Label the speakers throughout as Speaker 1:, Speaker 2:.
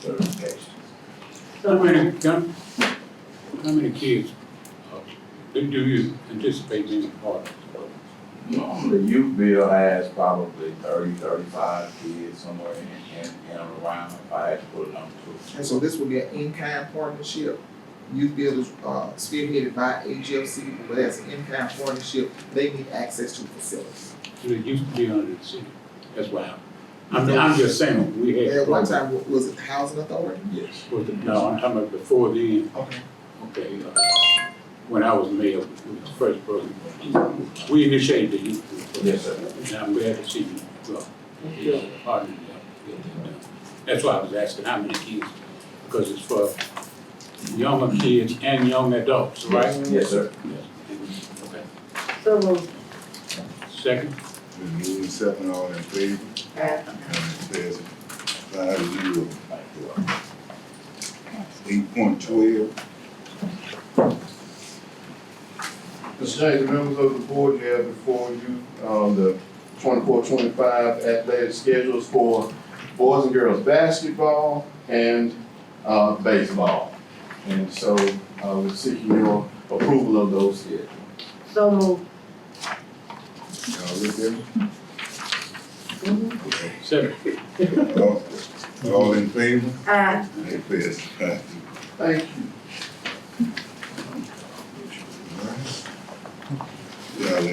Speaker 1: certification.
Speaker 2: How many, gun- how many kids, uh, do do you anticipate being part of this program?
Speaker 1: Normally, youth bill has probably 30, 35 kids somewhere in, in, in and around, if I had to put a number to it.
Speaker 3: And so this will be an in-kind partnership. Youth Build is uh, spearheaded by AGFC, but as an in-kind partnership, they need access to facilities.
Speaker 2: It used to be under the city, that's why I'm, I'm, I'm just saying, we had.
Speaker 3: At one
Speaker 2: programs.
Speaker 3: time, wa- was it the Housing Authority?
Speaker 1: Yes.
Speaker 2: Was it- No, I'm talking about before then,
Speaker 3: Okay.
Speaker 2: okay, uh, when I was mayor, it was the first program. We initiated the youth. group program.
Speaker 1: Yes, sir.
Speaker 2: And I'm glad to see you, well, yeah, partner, yeah, yeah, yeah. That's why I was asking how many kids, because it's for younger kids and young adults, right?
Speaker 1: Yes, sir.
Speaker 2: Yes. Okay.
Speaker 4: So moved.
Speaker 2: Second,
Speaker 5: Been moving seven, all in favor,
Speaker 4: Aye.
Speaker 5: and it says five zero. Eight point twelve,
Speaker 6: Mr. James, members of the board, you have before you, um, the 24-25 athletic schedules for boys and girls basketball and, uh, baseball. And so, uh, we're seeking your approval of those schedules.
Speaker 4: So moved.
Speaker 5: y'all look at
Speaker 2: seven,
Speaker 5: it, all, all in favor,
Speaker 4: Aye.
Speaker 5: and it says five zero.
Speaker 6: Thank you.
Speaker 5: Y'all have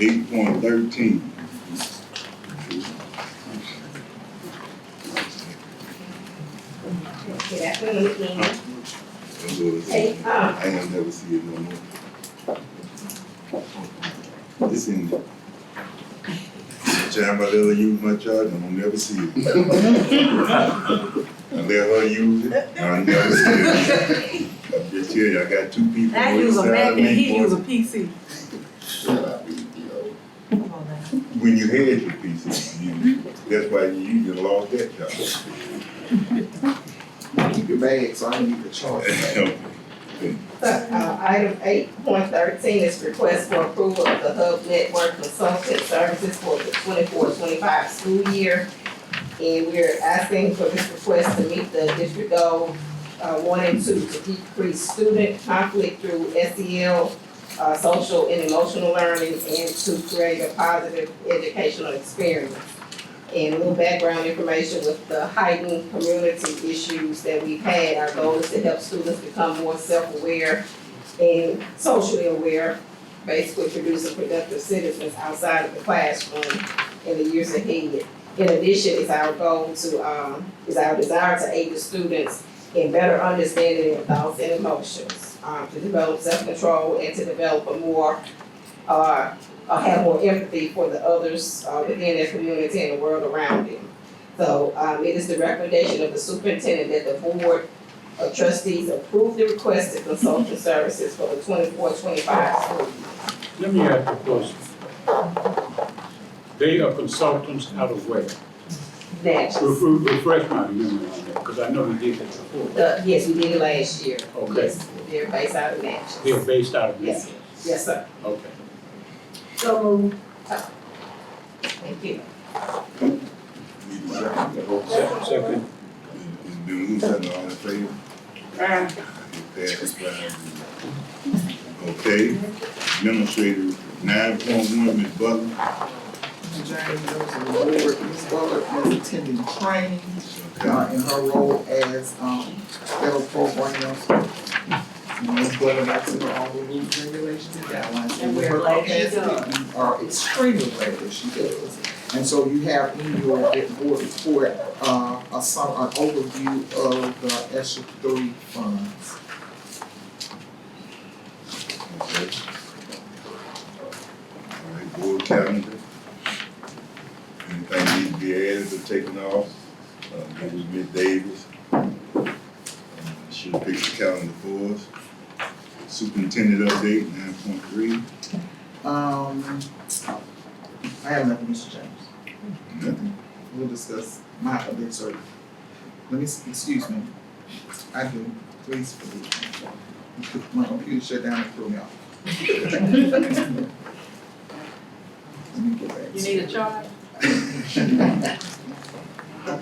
Speaker 5: eight point thirteen.
Speaker 4: Yeah, eighteen.
Speaker 5: That's what it's-
Speaker 4: Eight, uh.
Speaker 5: I ain't never see it no more. This in. Time I let her use my charger, I'm gonna never see it. I let her use it, I'll never see it. I'm just telling you, I got two people
Speaker 4: I
Speaker 5: on the
Speaker 4: use a
Speaker 5: side
Speaker 4: Mac
Speaker 5: of
Speaker 4: and he
Speaker 5: me.
Speaker 4: use a
Speaker 5: boy.
Speaker 4: PC.
Speaker 5: Shut up, you know.
Speaker 4: Come on now.
Speaker 5: When you had your pieces, you, that's why you, you lost that job.
Speaker 3: Keep your bag, so I need the charge.
Speaker 7: Uh, item eight point thirteen is request for approval of the Hub Network Consultant Services for the 24-25 school year. And we're asking for this request to meet the district goal, uh, one and two to decrease student conflict through SEL, uh, social and emotional learning, and to create a positive educational experience. And a little background information with the heightened community issues that we've had, our goal is to help students become more self-aware and socially aware, basically producing productive citizens outside of the classroom in the years ahead. In addition, it's our goal to, um, is our desire to aid the students in better understanding their thoughts and emotions, um, to develop self-control and to develop a more, uh, uh, have more empathy for the others uh, within their community and the world around them. So um, it is the recommendation of the superintendent that the board of trustees approve the request to consultant services for the 24-25 school year.
Speaker 2: let me ask you a question. They are consultants out of where?
Speaker 7: Natchez.
Speaker 2: Refresh, refresh my memory on that, because I know we did that before.
Speaker 7: The- yes, we did it last year.
Speaker 2: Okay.
Speaker 7: Yes, They're based out of Natchez.
Speaker 2: They're based out of
Speaker 7: Yes,
Speaker 2: Memphis.
Speaker 7: yes, sir.
Speaker 2: Okay.
Speaker 4: So moved.
Speaker 7: Thank you.
Speaker 2: Second, second,
Speaker 5: It's been moved and all in favor?
Speaker 4: Aye.
Speaker 5: It passes five zero. Okay, administrator, nine point one, Ms. Butler.
Speaker 3: James, members of the board, Ms. Butler is attending training uh,
Speaker 5: Okay.
Speaker 3: in her role as, um, federal program officer. And Ms. Butler likes to know all the rules, regulations, and guidelines.
Speaker 7: And we're glad she
Speaker 3: Her capacity, you Are extremely glad that she does. And so you have in your board report, uh, a sum, an overview of the ESSER three funds.
Speaker 5: Okay. All right, board calendar. Anything need to be added or taken off? Uh, it was Ms. Davis. Uh, She'll pick the calendar for us. Superintendent update, nine point three,
Speaker 3: Um, I have nothing, Mr. James.
Speaker 5: nothing.
Speaker 3: We'll discuss my update, sorry. Let me, s- excuse me. I do, please forgive me. My computer shut down and threw me off. Let me get back.
Speaker 4: You need a charge?
Speaker 3: to-